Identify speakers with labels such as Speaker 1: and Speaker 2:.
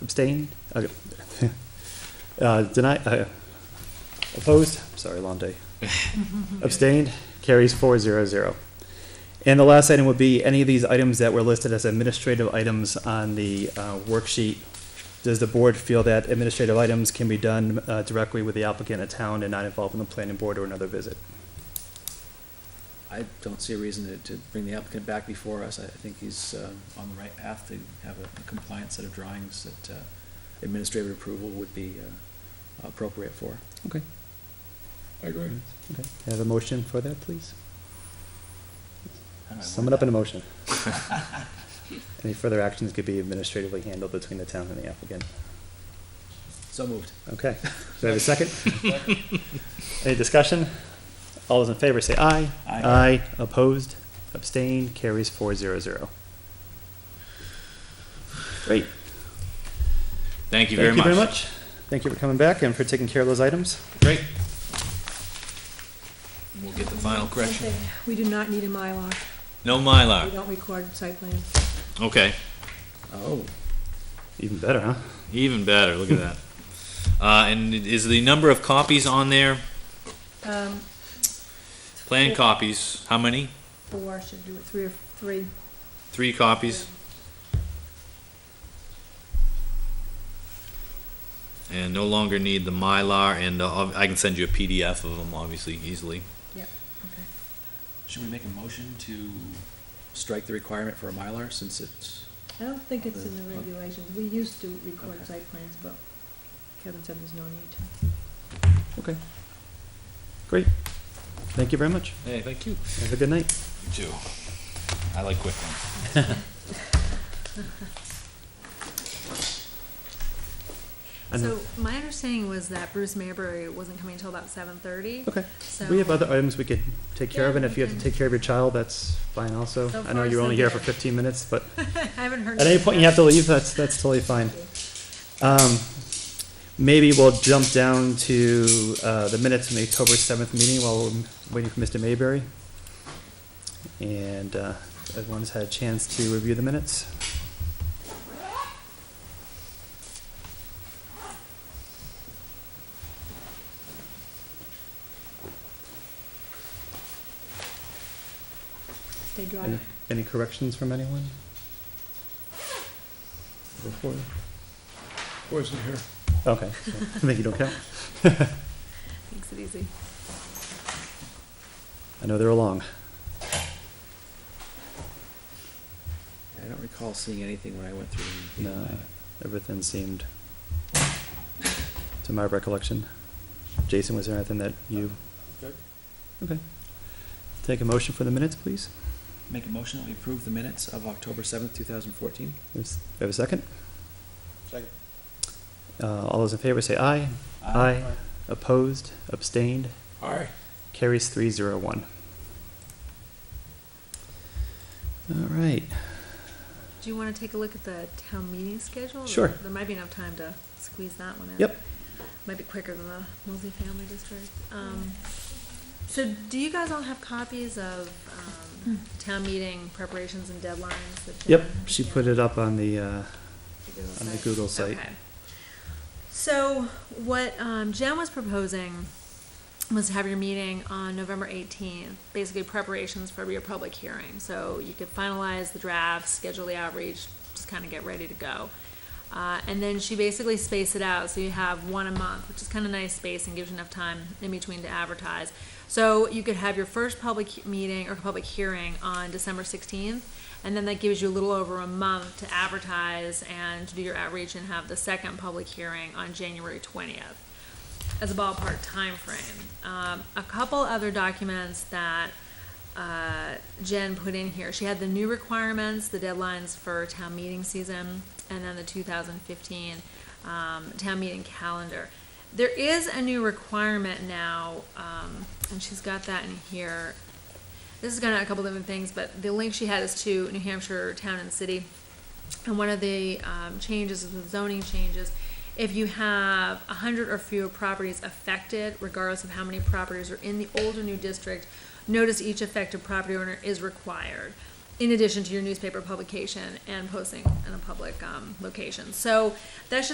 Speaker 1: Abstained? Okay. Uh, Deny, uh, opposed? Sorry, long day. Abstained? Carries four zero zero. And the last item would be any of these items that were listed as administrative items on the uh, worksheet. Does the board feel that administrative items can be done uh, directly with the applicant at town and not involving the planning board or another visit?
Speaker 2: I don't see a reason to, to bring the applicant back before us. I I think he's uh, on the right path to have a a compliant set of drawings that uh, administrative approval would be uh, appropriate for.
Speaker 1: Okay.
Speaker 3: I agree.
Speaker 1: Okay. Can I Have a motion for that, please? Sum it up in a motion. Any further actions could be administratively handled between the town and the applicant.
Speaker 2: So moved.
Speaker 1: Okay, do I have a second? Any discussion? All those in favor say aye.
Speaker 2: Aye.
Speaker 1: opposed, abstained, carries four zero zero. Great.
Speaker 3: Thank you very
Speaker 1: Thank you
Speaker 3: much.
Speaker 1: very much. Thank you for coming back and for taking care of those items.
Speaker 3: Great. We'll get the final correction.
Speaker 4: Something. We do not need a Mylar.
Speaker 3: No
Speaker 4: We
Speaker 3: Mylar.
Speaker 4: don't record site plans.
Speaker 3: Okay,
Speaker 2: Oh,
Speaker 1: Even better, huh?
Speaker 3: even better. Look at that. Uh, and is the number of copies on there?
Speaker 4: Um,
Speaker 3: Plan copies, how many?
Speaker 4: four, should do it, three or three.
Speaker 3: Three copies? And no longer need the Mylar and uh, ob- I can send you a PDF of them, obviously, easily.
Speaker 4: Okay.
Speaker 2: should we make a motion to strike the requirement for a Mylar since it's,
Speaker 4: I don't think it's in the regulations. We used to record site plans, but Kevin said there's no need to.
Speaker 1: Okay. Great. Thank you very much.
Speaker 3: Hey, thank you.
Speaker 1: Have a good night.
Speaker 3: You too. I like quick ones.
Speaker 1: And-
Speaker 5: So my understanding was that Bruce Mayberry wasn't coming until about seven thirty.
Speaker 1: Okay.
Speaker 5: So
Speaker 1: We have other items we could take care of,
Speaker 5: Yeah,
Speaker 1: and if you have
Speaker 5: we
Speaker 1: to
Speaker 5: can-
Speaker 1: take care of your child, that's fine also.
Speaker 5: So
Speaker 1: I know
Speaker 5: far,
Speaker 1: you're
Speaker 5: so
Speaker 1: only here for
Speaker 5: good.
Speaker 1: fifteen minutes, but
Speaker 5: I haven't heard.
Speaker 1: At any point you have to leave, that's, that's totally fine. Um, maybe we'll jump down to, uh, the minutes from the October seventh meeting while we're waiting for Mr. Mayberry. And, uh, everyone's had a chance to review the minutes.
Speaker 4: Stay dry.
Speaker 1: Any, any corrections from anyone? Before,
Speaker 3: Wasn't here.
Speaker 1: okay, I think you don't count.
Speaker 5: Makes it easy.
Speaker 1: I know they're long.
Speaker 2: I don't recall seeing anything when I went through. the-
Speaker 1: No, everything seemed, to my recollection. Jason, was there anything that you?
Speaker 3: Good.
Speaker 1: Okay. Take a motion for the minutes, please.
Speaker 2: Make a motion that we approve the minutes of October seventh, two thousand fourteen.
Speaker 1: There's- we Have a second?
Speaker 3: Second.
Speaker 1: Uh, all those in favor say aye. Opposed, abstained,
Speaker 3: Aye.
Speaker 1: carries three zero one. All right,
Speaker 5: Do you want to take a look at the town meeting schedule?
Speaker 1: Sure.
Speaker 5: There might be enough time to squeeze that one in.
Speaker 1: Yep.
Speaker 5: Might be quicker than the multifamily district. Um, so do you guys all have copies of, um, town meeting preparations and deadlines? that
Speaker 1: yep,
Speaker 5: Jen-
Speaker 1: she
Speaker 5: Yeah.
Speaker 1: put it up on the, uh, on the
Speaker 5: site.
Speaker 1: Google site.
Speaker 5: Okay. So what um, Jen was proposing was to have your meeting on November eighteenth, basically preparations for your public hearing. So you could finalize the draft, schedule the outreach, just kind of get ready to go. Uh, and then she basically spaced it out, so you have one a month, which is kind of nice space and gives you enough time in between to advertise. So you could have your first public he- meeting or public hearing on December sixteenth, and then that gives you a little over a month to advertise and to do your outreach and have the second public hearing on January twentieth as a ballpark timeframe. Um, a couple other documents that uh, Jen put in here. She had the new requirements, the deadlines for town meeting season, and then the 2015 um, town meeting calendar. There is a new requirement now, um, and she's got that in here. This is going to a couple different things, but the link she had is to New Hampshire Town and City. And one of the um, changes is the zoning changes. If you have a hundred or fewer properties affected, regardless of how many properties are in the old or new district, notice each affected property owner is required. in addition to your newspaper publication and posting in a public, um, location. So that's just